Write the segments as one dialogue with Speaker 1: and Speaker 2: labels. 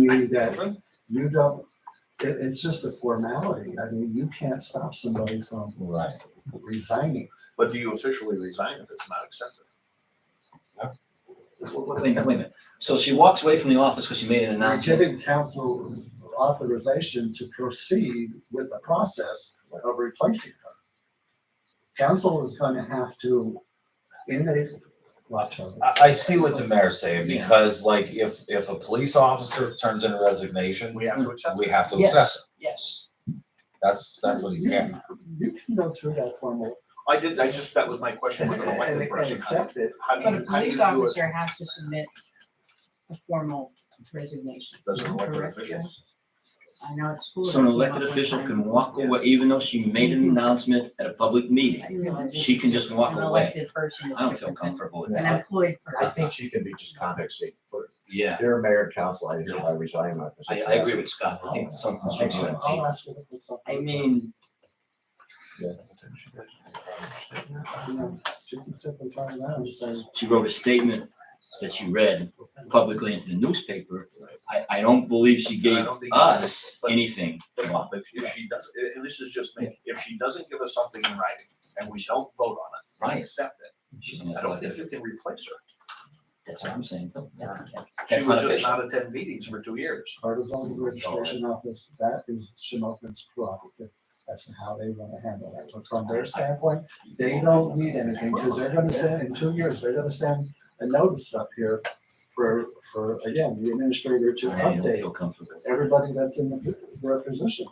Speaker 1: be that you don't, it, it's just a formality. I mean, you can't stop somebody from
Speaker 2: Right.
Speaker 1: resigning.
Speaker 3: But do you officially resign if it's not accepted?
Speaker 4: Wait a minute, wait a minute. So she walks away from the office because she made an
Speaker 1: You're
Speaker 4: announcement.
Speaker 1: giving council authorization to proceed with the process of replacing her. Council is gonna have to, in a, watch out.
Speaker 2: I, I see what the mayor's saying, because like, if, if a police officer turns in a resignation,
Speaker 3: We have to accept
Speaker 2: we have to accept
Speaker 4: Yes,
Speaker 2: it.
Speaker 4: yes.
Speaker 2: That's, that's what he's
Speaker 1: You-
Speaker 2: getting. at.
Speaker 1: You can go through that formal
Speaker 3: it. I did, I just, that was my question
Speaker 1: and,
Speaker 3: with an
Speaker 1: and- and
Speaker 3: elected person.
Speaker 1: accept it.
Speaker 3: How do
Speaker 5: But a
Speaker 3: you, how do you
Speaker 5: police
Speaker 3: do it?
Speaker 5: officer has to submit a formal resignation.
Speaker 3: Does an elected
Speaker 5: Correct,
Speaker 3: official?
Speaker 5: I know it's cool.
Speaker 4: So an elected official can walk away, even though she made an announcement at a public meeting. She can just walk
Speaker 5: An
Speaker 4: away.
Speaker 5: elected person is
Speaker 4: I don't feel
Speaker 5: different than
Speaker 4: comfortable with
Speaker 5: an
Speaker 4: that.
Speaker 5: employed
Speaker 6: I
Speaker 5: person.
Speaker 6: think she can be just contact state clerk.
Speaker 4: Yeah,
Speaker 6: They're a mayor and council, I hereby resign my
Speaker 4: I,
Speaker 6: position. Uh-huh.
Speaker 4: I agree with Scott. I think something should be
Speaker 1: I'll- I'll ask her if it's up.
Speaker 4: I mean,
Speaker 1: You know, She can simply turn around and say,
Speaker 4: she wrote a statement that she read publicly into the newspaper. I, I don't believe she
Speaker 3: I
Speaker 4: gave
Speaker 3: don't think-
Speaker 4: us
Speaker 3: But-
Speaker 4: anything.
Speaker 3: But if, if she does, and and this is just me, if she doesn't give us something in writing and we don't vote on it,
Speaker 4: Right.
Speaker 3: we accept it.
Speaker 4: She's an
Speaker 3: I don't think
Speaker 4: elected,
Speaker 3: you can replace her.
Speaker 4: that's what I'm saying. Yeah, yeah.
Speaker 3: She
Speaker 4: That's
Speaker 3: was
Speaker 4: not
Speaker 3: just
Speaker 4: official.
Speaker 3: not attend meetings for two years.
Speaker 1: part of the registration office, that is Shinopin's prerogative. That's how they wanna handle that. But from their standpoint, they don't need anything, because they're gonna send, in two years, they're gonna send a notice up here for, for, again, the administrator to
Speaker 4: I don't
Speaker 1: update
Speaker 4: feel comfortable.
Speaker 1: everybody that's in the- their position.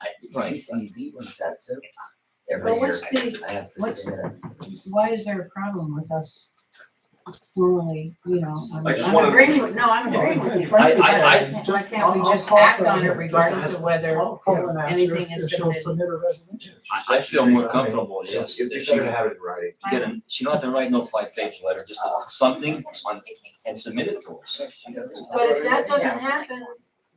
Speaker 4: I, right.
Speaker 7: CCD was that too. Every
Speaker 5: But
Speaker 7: year,
Speaker 5: what's the,
Speaker 7: I have to
Speaker 5: what's-
Speaker 7: submit a
Speaker 5: why is there a problem with us formally, you know? I'm-
Speaker 3: I just
Speaker 5: I'm
Speaker 3: wanna-
Speaker 5: agreeing with, no, I'm agreeing with you.
Speaker 4: I-
Speaker 5: But
Speaker 4: I-
Speaker 5: why can't- Why can't we just act on it regardless of whether,
Speaker 1: I'll call and ask her
Speaker 5: anything is
Speaker 1: if she'll
Speaker 5: submitted.
Speaker 1: submit a resignation.
Speaker 4: I, I feel more comfortable, yes,
Speaker 6: You
Speaker 4: if
Speaker 6: just
Speaker 4: she
Speaker 6: gotta have it in writing.
Speaker 4: get a, she don't have to write no five-page letter, just something on, and submit it to us.
Speaker 5: but if that doesn't happen,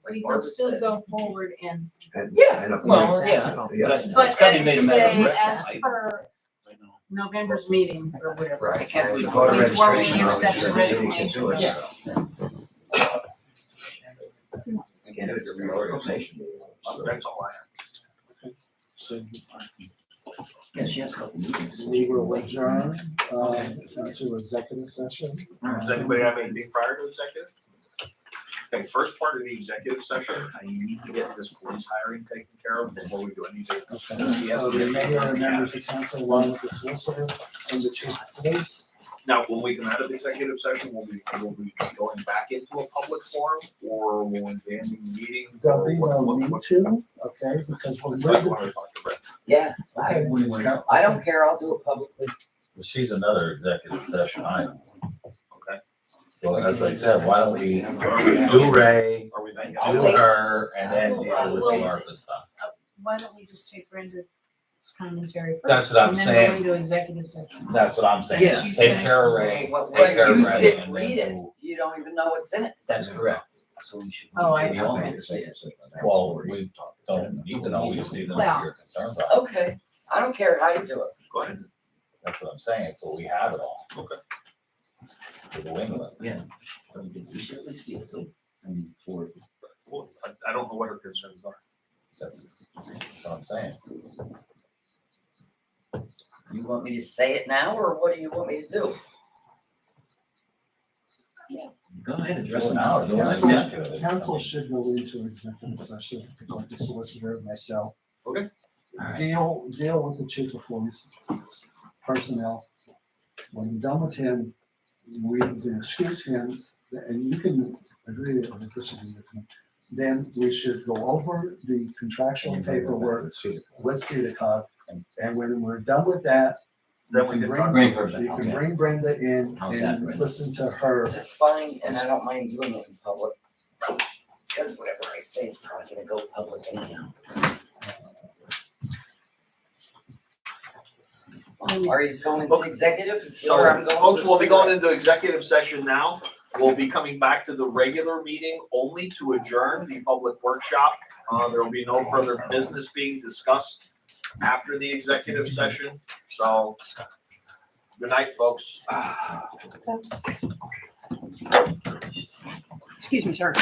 Speaker 5: we can still go forward and,
Speaker 6: and-
Speaker 4: Yeah,
Speaker 6: and a-
Speaker 4: well, yeah,
Speaker 6: Yeah.
Speaker 4: but I-
Speaker 5: but
Speaker 4: it's gotta be made a
Speaker 5: as
Speaker 4: matter of
Speaker 5: say,
Speaker 4: record.
Speaker 5: as
Speaker 4: I-
Speaker 5: per November's meeting or whatever.
Speaker 6: Right.
Speaker 4: can't believe
Speaker 6: And voter
Speaker 4: we
Speaker 6: registration
Speaker 5: formally
Speaker 6: officer
Speaker 5: accept the
Speaker 6: said you can do it.
Speaker 4: resignation.
Speaker 6: Again, it's a reorganization. So-
Speaker 3: That's all I have.
Speaker 4: Yeah, she has a couple meetings.
Speaker 1: We will adjourn, uh, to executive session.
Speaker 3: Does anybody have anything prior to executive? Okay, first part of the executive session, I need to get this police hiring taken care of before we do anything.
Speaker 1: Okay,
Speaker 3: Yes.
Speaker 1: so Uh, the mayor and members of council along with the solicitor and the chief of police.
Speaker 3: Now, when we come out of executive session, will we, will we be going back into a public forum or will we be ending the meeting?
Speaker 1: There'll
Speaker 3: or
Speaker 1: be
Speaker 3: what-
Speaker 1: no
Speaker 3: what-
Speaker 1: need
Speaker 3: what-
Speaker 1: to, okay, because we're
Speaker 3: That's what I
Speaker 1: moving.
Speaker 3: wanted to talk about.
Speaker 7: Yeah, I, I don't care, I'll do it publicly.
Speaker 2: Well, She's another executive session item.
Speaker 3: Okay.
Speaker 2: So as I said, why don't we do Ray,
Speaker 3: Are we then?
Speaker 2: do her, and then deal with the ARPA stuff?
Speaker 5: Why don't we just take Brenda's commentary first?
Speaker 2: That's what I'm saying.
Speaker 5: And then go into executive session.
Speaker 2: That's what I'm
Speaker 4: Yeah.
Speaker 2: saying. Take care of Ray,
Speaker 4: What-
Speaker 2: take
Speaker 4: what
Speaker 2: care of
Speaker 7: you
Speaker 2: Ray.
Speaker 7: sit,
Speaker 2: and then
Speaker 7: read it.
Speaker 2: we'll-
Speaker 7: You don't even know what's in it.
Speaker 4: That's correct. So we should.
Speaker 5: Oh, I-
Speaker 4: we
Speaker 6: We have
Speaker 4: all
Speaker 6: to
Speaker 4: have
Speaker 6: make
Speaker 4: to
Speaker 6: a
Speaker 4: say
Speaker 6: second
Speaker 4: it.
Speaker 6: statement. That's
Speaker 2: Well,
Speaker 6: what
Speaker 2: we don't need to know, we just need to know
Speaker 5: Well.
Speaker 2: what your concerns are.
Speaker 7: Okay, I don't care how you do it.
Speaker 3: Go ahead.
Speaker 2: That's what I'm saying, so we have it all.
Speaker 3: Okay.
Speaker 2: To the wing of it.
Speaker 4: But we did- we should at least see it, so, I mean, for,
Speaker 3: Well, I, I don't know what her concerns are.
Speaker 2: That's that's what I'm saying.
Speaker 7: You want me to say it now or what do you want me to do?
Speaker 4: go ahead, address
Speaker 2: Do it
Speaker 4: them
Speaker 2: now,
Speaker 4: now.
Speaker 2: or do it
Speaker 1: Council-
Speaker 2: next year. I mean,
Speaker 1: Council should go into executive session, like the solicitor, myself.
Speaker 3: Okay.
Speaker 1: Deal, deal with the chief of police personnel. When you're done with him, we can excuse him, and you can agree or disagree with me. Then we should go over the contractual paperwork with CEDACOG, and when we're done with that,
Speaker 3: Then we
Speaker 1: You
Speaker 3: can
Speaker 1: bring-
Speaker 3: talk.
Speaker 4: Bring her back,
Speaker 1: you can
Speaker 4: okay.
Speaker 1: bring Brenda in
Speaker 4: How's that,
Speaker 1: and
Speaker 4: Brenda?
Speaker 1: listen to her.
Speaker 7: That's fine and I don't mind doing it in public. Because whatever I say is probably gonna go public anyhow. Marty's going to executive
Speaker 3: So,
Speaker 7: or I'm
Speaker 3: um,
Speaker 7: going to.
Speaker 3: folks, we'll be going into executive session now. We'll be coming back to the regular meeting only to adjourn the public workshop. Uh, there will be no further business being discussed after the executive session, so. Good night, folks.
Speaker 8: Excuse me, sir.